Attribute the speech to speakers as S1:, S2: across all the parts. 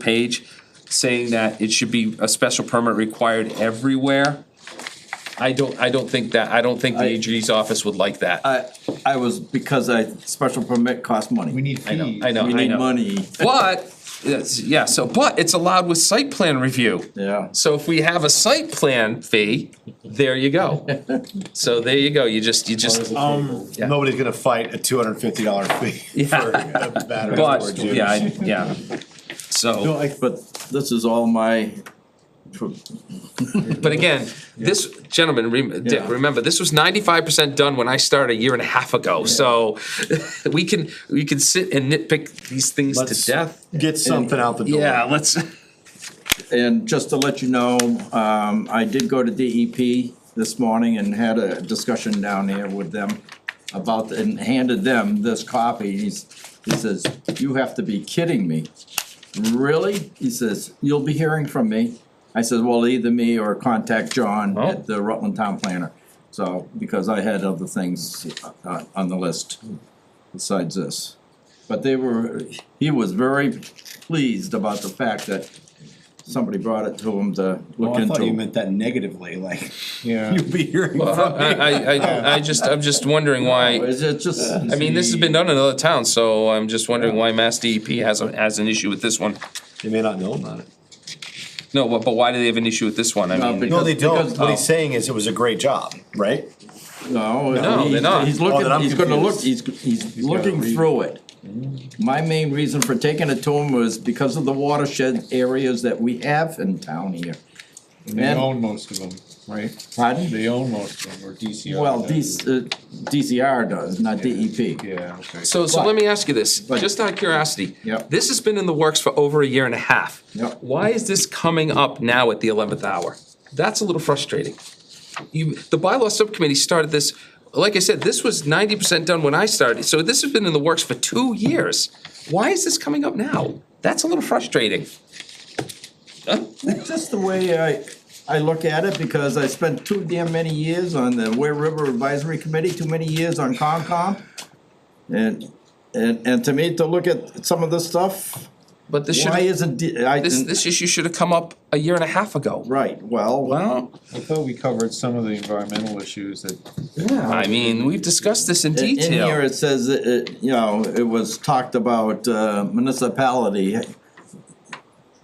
S1: page saying that it should be a special permit required everywhere. I don't, I don't think that, I don't think the AG's office would like that.
S2: I, I was, because I, special permit costs money.
S3: We need fees.
S1: I know, I know,
S2: We
S1: I
S2: need
S1: know.
S2: money,
S1: But, it's- yeah, so, but it's allowed with site plan review.
S2: yeah.
S1: So if we have a site plan fee, there you go. So there you go, you just, you just,
S3: Um,
S1: Yeah.
S3: nobody's gonna fight a two hundred and fifty dollar fee for a battery
S1: but,
S3: storage
S1: yeah, I-
S3: unit.
S1: yeah. So,
S3: No, I,
S2: But this is all my, pro-
S1: but again, this, gentlemen, rem- Dick,
S2: Yeah.
S1: remember, this was ninety-five percent done when I started a year and a half ago, so we can, we can sit and nitpick these things
S3: Let's-
S1: to death.
S3: get something out the door.
S1: Yeah, let's,
S2: and just to let you know, um, I did go to DEP this morning and had a discussion down there with them about, and handed them this copy, he's, he says, you have to be kidding me. Really? He says, you'll be hearing from me. I said, well, either me or contact John
S1: Oh.
S2: at the Rutland Town Planner. So, because I had other things uh, on the list besides this. But they were, he was very pleased about the fact that somebody brought it to him to
S4: Well,
S2: look
S4: I thought you
S2: into.
S4: meant that negatively, like,
S3: Yeah.
S4: you'll be hearing from
S1: I,
S4: me.
S1: I, I, I just, I'm just wondering why,
S2: It's it's just.
S1: I mean, this has been done in other towns, so I'm just wondering why Mass DEP has, a- has an issue with this one.
S3: They may not know about it.
S1: No, but, but why do they have an issue with this one? I
S2: No,
S1: mean.
S2: because-
S3: No, they don't.
S2: because-
S3: What he's saying is it was a great job, right?
S2: No,
S1: No, they're not.
S2: he's, he's
S3: Oh, then I'm
S2: looking, he's gonna look, he's,
S3: confused.
S2: he's
S3: gotta
S2: looking
S3: read.
S2: through it. My main reason for taking it to him was because of the watershed areas that we have in town here.
S5: They
S2: And,
S5: own most of them, right?
S2: pardon?
S5: They own most of them, or DCR.
S2: Well,
S5: does.
S2: DC, uh, DCR does, not E DEP.
S5: Yeah, okay.
S1: So, so let me ask you this,
S2: But-
S1: just out of curiosity.
S2: Yep.
S1: This has been in the works for over a year and a half.
S2: Yep.
S1: Why is this coming up now at the eleventh hour? That's a little frustrating. You, the bylaw subcommittee started this, like I said, this was ninety percent done when I started, so this has been in the works for two years. Why is this coming up now? That's a little frustrating.
S2: It's just the way I, I look at it, because I spent too damn many years on the Ware River Advisory Committee, too many years on Concom. And, and, and to me, to look at some of this stuff,
S1: But this should,
S2: why
S1: this,
S2: isn't, D- I,
S1: this issue should have come up a year and a half ago.
S2: right, well.
S1: Well,
S5: I thought we covered some of the environmental issues that,
S1: I mean, we've discussed this in
S2: In-
S1: detail.
S2: In here, it says, it- it, you know, it was talked about uh, municipality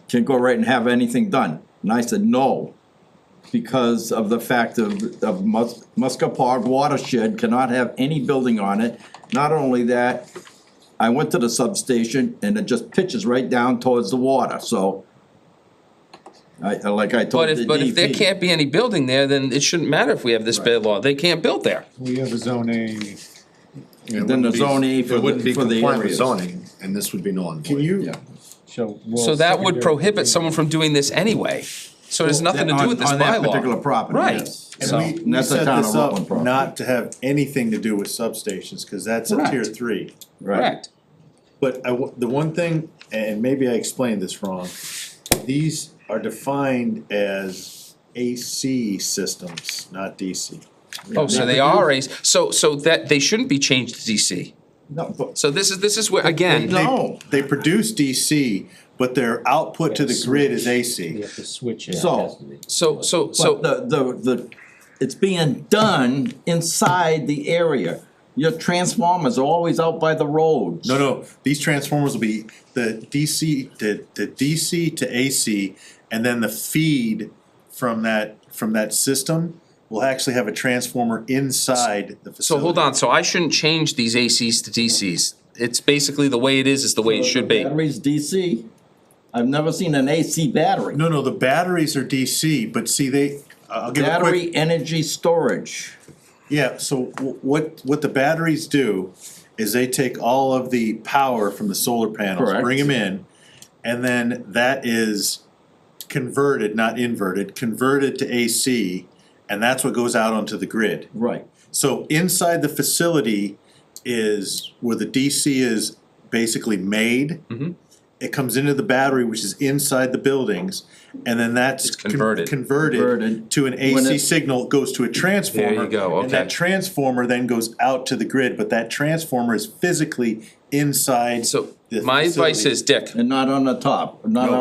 S2: can go right and have anything done. And I said, no, because of the fact of, of Mus- Muskapog watershed cannot have any building on it. Not only that, I went to the substation and it just pitches right down towards the water, so. I, I- like I told
S1: But
S2: the
S1: if, but if there
S2: DEP,
S1: can't be any building there, then it shouldn't matter if we have this bad law, they can't build there.
S5: we have a zone A.
S2: Then the zone A for
S3: It wouldn't
S2: the,
S3: be
S2: for the
S3: compliant with
S2: areas.
S3: zoning, and this would be null and void.
S4: you?
S2: Yeah.
S5: So.
S1: So that would prohibit someone from doing this anyway, so it has nothing to do with this
S2: On- On that particular
S1: bylaw.
S2: property,
S1: Right.
S2: yes.
S4: And
S1: So,
S4: we-
S2: and
S4: we
S2: that's the
S4: set
S2: town of
S4: this up
S2: Rutland property.
S4: Not to have anything to do with substations, cause that's a tier
S1: Correct.
S4: three.
S1: Correct,
S4: But I, wa- the one thing, and maybe I explained this wrong, these are defined as AC systems, not DC.
S1: oh, so they are, a- so, so that, they shouldn't be changed to DC.
S2: No, but-
S1: So this is, this is where, again,
S4: They-
S2: No.
S4: They produce DC, but their output to the grid is AC.
S6: have to switch it.
S2: So-
S1: so, so,
S2: But
S1: so,
S2: the, the, the, it's being done inside the area. Your transformers are always out by the roads.
S4: No, no, these transformers will be the DC, the, the DC to AC, and then the feed from that, from that system will actually have a transformer inside the facility.
S1: so hold on, so I shouldn't change these ACs to DCs. It's basically the way it is, is the way it should be.
S2: Batteries DC. I've never seen an AC battery.
S4: No, no, the batteries are DC, but see, they, uh, I'll give a quick,
S2: Battery energy storage.
S4: yeah, so wh- what, what the batteries do is they take all of the power from the solar panels,
S2: Correct.
S4: bring them in, and then that is converted, not inverted, converted to AC, and that's what goes out onto the grid.
S2: Right.
S4: So inside the facility is where the DC is basically made.
S1: Mm-hmm.
S4: It comes into the battery, which is inside the buildings, and then that's.
S1: It's
S4: con-
S1: converted.
S2: Converted.
S4: Converted to an
S2: When
S4: AC
S2: it-
S4: signal, goes to a transformer.
S1: go,
S4: And
S1: okay.
S4: that transformer then goes out to the grid, but that transformer is physically inside.
S1: So,
S4: the
S1: my advice
S4: facility.
S1: is, Dick,
S2: And not on the top, not
S4: No,